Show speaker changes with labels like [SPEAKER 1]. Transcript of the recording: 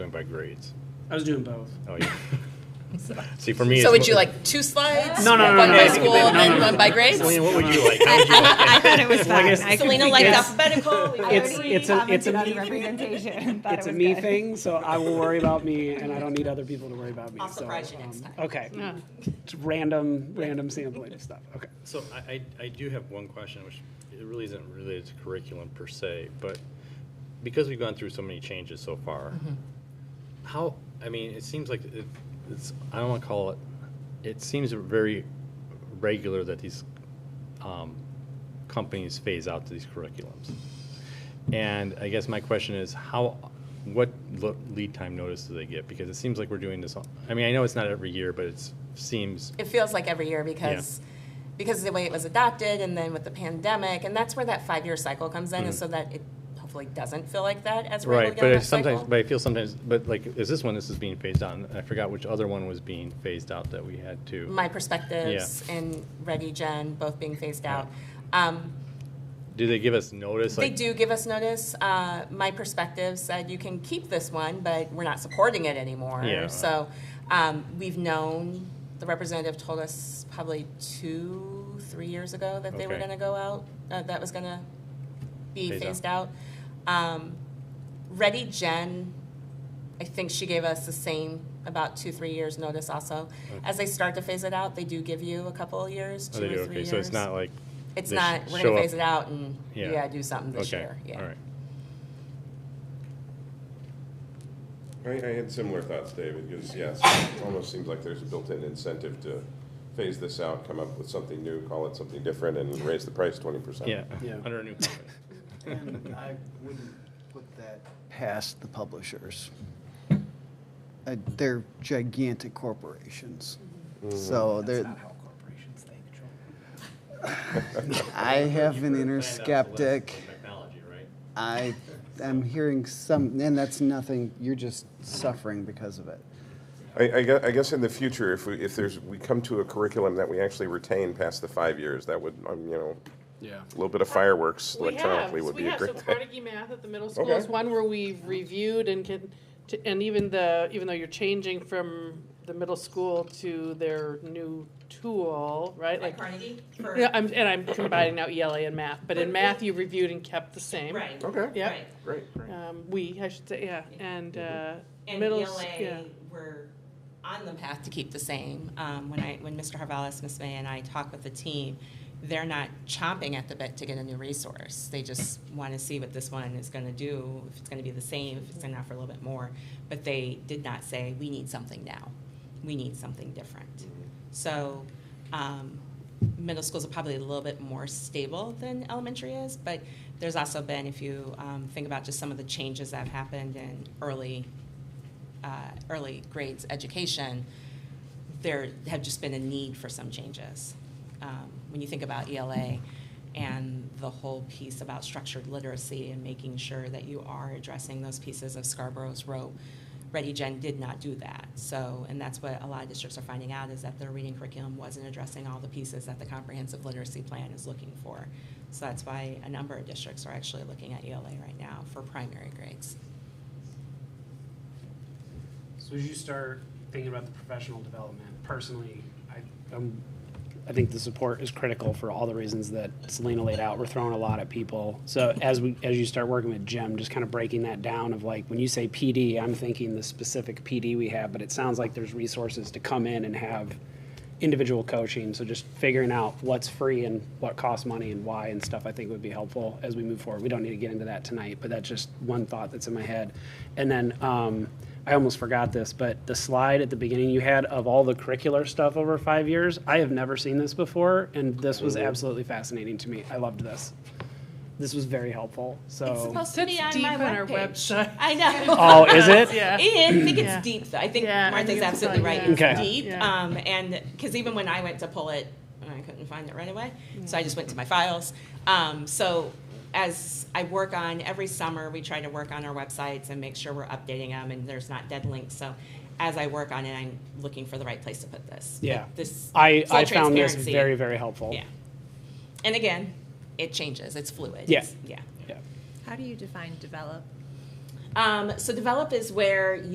[SPEAKER 1] by grades?
[SPEAKER 2] I was doing both.
[SPEAKER 1] Oh, yeah. See, for me, it's.
[SPEAKER 3] So would
[SPEAKER 1] mo-
[SPEAKER 3] you like two slides?
[SPEAKER 2] No, no, no,
[SPEAKER 3] One
[SPEAKER 2] no,
[SPEAKER 3] by
[SPEAKER 2] no,
[SPEAKER 3] school
[SPEAKER 2] no,
[SPEAKER 3] and
[SPEAKER 2] no,
[SPEAKER 3] then
[SPEAKER 2] no,
[SPEAKER 3] one by grades?
[SPEAKER 1] Selena, what would you like? How would you like?
[SPEAKER 4] I thought it was fine. I could
[SPEAKER 3] Selena
[SPEAKER 4] be
[SPEAKER 3] liked
[SPEAKER 4] good.
[SPEAKER 3] alphabetical.
[SPEAKER 4] I
[SPEAKER 2] It's-
[SPEAKER 4] already
[SPEAKER 2] it's a-
[SPEAKER 4] commented
[SPEAKER 2] it's a
[SPEAKER 4] on
[SPEAKER 2] me
[SPEAKER 4] the
[SPEAKER 2] thing.
[SPEAKER 4] representation. Thought
[SPEAKER 2] it's
[SPEAKER 4] it
[SPEAKER 2] a
[SPEAKER 4] was
[SPEAKER 2] me
[SPEAKER 4] good.
[SPEAKER 2] thing, so I will worry about me, and I don't need other people to worry about me.
[SPEAKER 3] I'll
[SPEAKER 2] so,
[SPEAKER 3] surprise you next
[SPEAKER 2] um,
[SPEAKER 3] time.
[SPEAKER 2] Okay. It's random, random sampling of stuff. Okay.
[SPEAKER 1] So I, I, I do have one question, which it really isn't related to curriculum per se, but because we've gone through so many changes so far, how, I mean, it seems like it, it's, I don't want to call it, it seems very regular that these um, companies phase out these curriculums. And I guess my question is, how, what lo- lead time notice do they get? Because it seems like we're doing this, on- I mean, I know it's not every year, but it seems,
[SPEAKER 3] It feels like every year because, because of the way it was adopted and then with the pandemic, and that's where that five-year cycle comes in, is so that it hopefully doesn't feel like that as we're
[SPEAKER 1] Mm. Right,
[SPEAKER 3] going down
[SPEAKER 1] but
[SPEAKER 3] that
[SPEAKER 1] it's sometimes,
[SPEAKER 3] cycle.
[SPEAKER 1] but I feel sometimes, but like, is this one, this is being phased out, and I forgot which other one was being phased out that we had to.
[SPEAKER 3] My perspectives and Ready Gen both being phased out. Um,
[SPEAKER 1] Do they give us notice?
[SPEAKER 3] They
[SPEAKER 1] like
[SPEAKER 3] do give us notice. Uh, My perspective said you can keep this one, but we're not supporting it anymore.
[SPEAKER 1] Yeah.
[SPEAKER 3] So um, we've known, the representative told us probably two, three years ago that they were
[SPEAKER 1] Okay.
[SPEAKER 3] going to go out, uh, that was going to be
[SPEAKER 1] Phase out.
[SPEAKER 3] phased out. Um, Ready Gen, I think she gave us the same, about two, three years notice also. As they start to phase it out, they do give you a couple of years,
[SPEAKER 1] Oh,
[SPEAKER 3] two
[SPEAKER 1] they
[SPEAKER 3] or three
[SPEAKER 1] do,
[SPEAKER 3] years.
[SPEAKER 1] okay, so it's not like.
[SPEAKER 3] It's
[SPEAKER 1] they sh-
[SPEAKER 3] not, we're
[SPEAKER 1] show
[SPEAKER 3] gonna
[SPEAKER 1] up-
[SPEAKER 3] phase it out and,
[SPEAKER 1] Yeah.
[SPEAKER 3] yeah, do something this
[SPEAKER 1] Okay,
[SPEAKER 3] year, yeah.
[SPEAKER 1] all right.
[SPEAKER 5] I, I had similar thoughts, David, because yes, it almost seems like there's a built-in incentive to phase this out, come up with something new, call it something different, and raise the price twenty percent.
[SPEAKER 1] Yeah,
[SPEAKER 2] Yeah.
[SPEAKER 1] under a new company.
[SPEAKER 6] And I wouldn't put that past the publishers. Uh, They're gigantic corporations. So they're. Mm-hmm. That's not how corporations think, I have an inner skeptic.
[SPEAKER 1] Technology, right?
[SPEAKER 6] I am hearing some, and that's nothing, you're just suffering because of it.
[SPEAKER 5] I, I guess, I guess in the future, if we, if there's, we come to a curriculum that we actually retain past the five years, that would, um, you know,
[SPEAKER 7] Yeah.
[SPEAKER 5] a little bit of fireworks
[SPEAKER 8] We have,
[SPEAKER 5] electronically would
[SPEAKER 8] we
[SPEAKER 5] be a
[SPEAKER 8] have, so
[SPEAKER 5] great thing.
[SPEAKER 8] Carnegie Math at the middle school
[SPEAKER 5] Okay.
[SPEAKER 8] is one where we reviewed and can, to- and even the, even though you're changing from the middle school to their new tool, right? Like,
[SPEAKER 3] Carnegie?
[SPEAKER 8] yeah, I'm, and I'm combining now ELA and math, but in math you reviewed and kept the same.
[SPEAKER 5] Okay,
[SPEAKER 8] Yeah.
[SPEAKER 3] right. Mm-hmm.
[SPEAKER 5] great, great.
[SPEAKER 8] Um, we, I should say, yeah, and, uh,
[SPEAKER 3] And E
[SPEAKER 8] middle, s- yeah.
[SPEAKER 3] ELA, we're on the path to keep the same. Um, When I, when Mr. Harvalis, Ms. May, and I talk with the team, they're not chomping at the bit to get a new resource. They just want to see what this one is going to do, if it's going to be the same, if it's going to offer a little bit more. But they did not say, we need something now. We need something different. So um, middle schools are probably a little bit more stable than elementary is, but there's also been, if you um, think about just some of the changes that have happened in early, uh, early grades education, there have just been a need for some changes. Um, When you think about ELA and the whole piece about structured literacy and making sure that you are addressing those pieces of Scarborough's rope, Ready Gen did not do that. So, and that's what a lot of districts are finding out is that their reading curriculum wasn't addressing all the pieces that the comprehensive literacy plan is looking for. So that's why a number of districts are actually looking at ELA right now for primary grades.
[SPEAKER 2] So as you start thinking about the professional development, personally, I, um, I think the support is critical for all the reasons that Selena laid out. We're throwing a lot at people. So as we, as you start working with Jim, just kind of breaking that down of like, when you say PD, I'm thinking the specific PD we have, but it sounds like there's resources to come in and have individual coaching. So just figuring out what's free and what costs money and why and stuff, I think would be helpful as we move forward. We don't need to get into that tonight, but that's just one thought that's in my head. And then um, I almost forgot this, but the slide at the beginning you had of all the curricular stuff over five years, I have never seen this before, and this was absolutely fascinating to me. I loved this. This was very helpful.
[SPEAKER 3] It's
[SPEAKER 2] So,
[SPEAKER 3] supposed to be
[SPEAKER 8] Sits
[SPEAKER 3] on
[SPEAKER 8] deep
[SPEAKER 3] my
[SPEAKER 8] in our
[SPEAKER 3] webpage.
[SPEAKER 8] website.
[SPEAKER 3] I know.
[SPEAKER 2] oh, is it?
[SPEAKER 8] Yeah.
[SPEAKER 3] And I think
[SPEAKER 8] Yeah.
[SPEAKER 3] it's deep, though. I think
[SPEAKER 8] Yeah, I think
[SPEAKER 3] Martha's
[SPEAKER 8] it's
[SPEAKER 3] absolutely
[SPEAKER 8] fun,
[SPEAKER 3] right.
[SPEAKER 8] yeah.
[SPEAKER 3] It's
[SPEAKER 2] Okay.
[SPEAKER 3] deep.
[SPEAKER 8] Yeah.
[SPEAKER 3] Um, and, because even when I went to pull it, I couldn't find it right away, so I just went to my files. Um, so as I work on, every summer, we try to work on our websites and make sure we're updating them and there's not dead links. So as I work on it, I'm looking for the right place to put this. But
[SPEAKER 2] Yeah.
[SPEAKER 3] This.
[SPEAKER 2] I,
[SPEAKER 3] full
[SPEAKER 2] I found this
[SPEAKER 3] transparency-
[SPEAKER 2] very, very helpful.
[SPEAKER 3] Yeah. And again, it changes. It's fluid.
[SPEAKER 2] Yeah.
[SPEAKER 3] It's- Yeah.
[SPEAKER 2] Yeah.
[SPEAKER 4] How do you define develop?
[SPEAKER 3] Um, so develop is where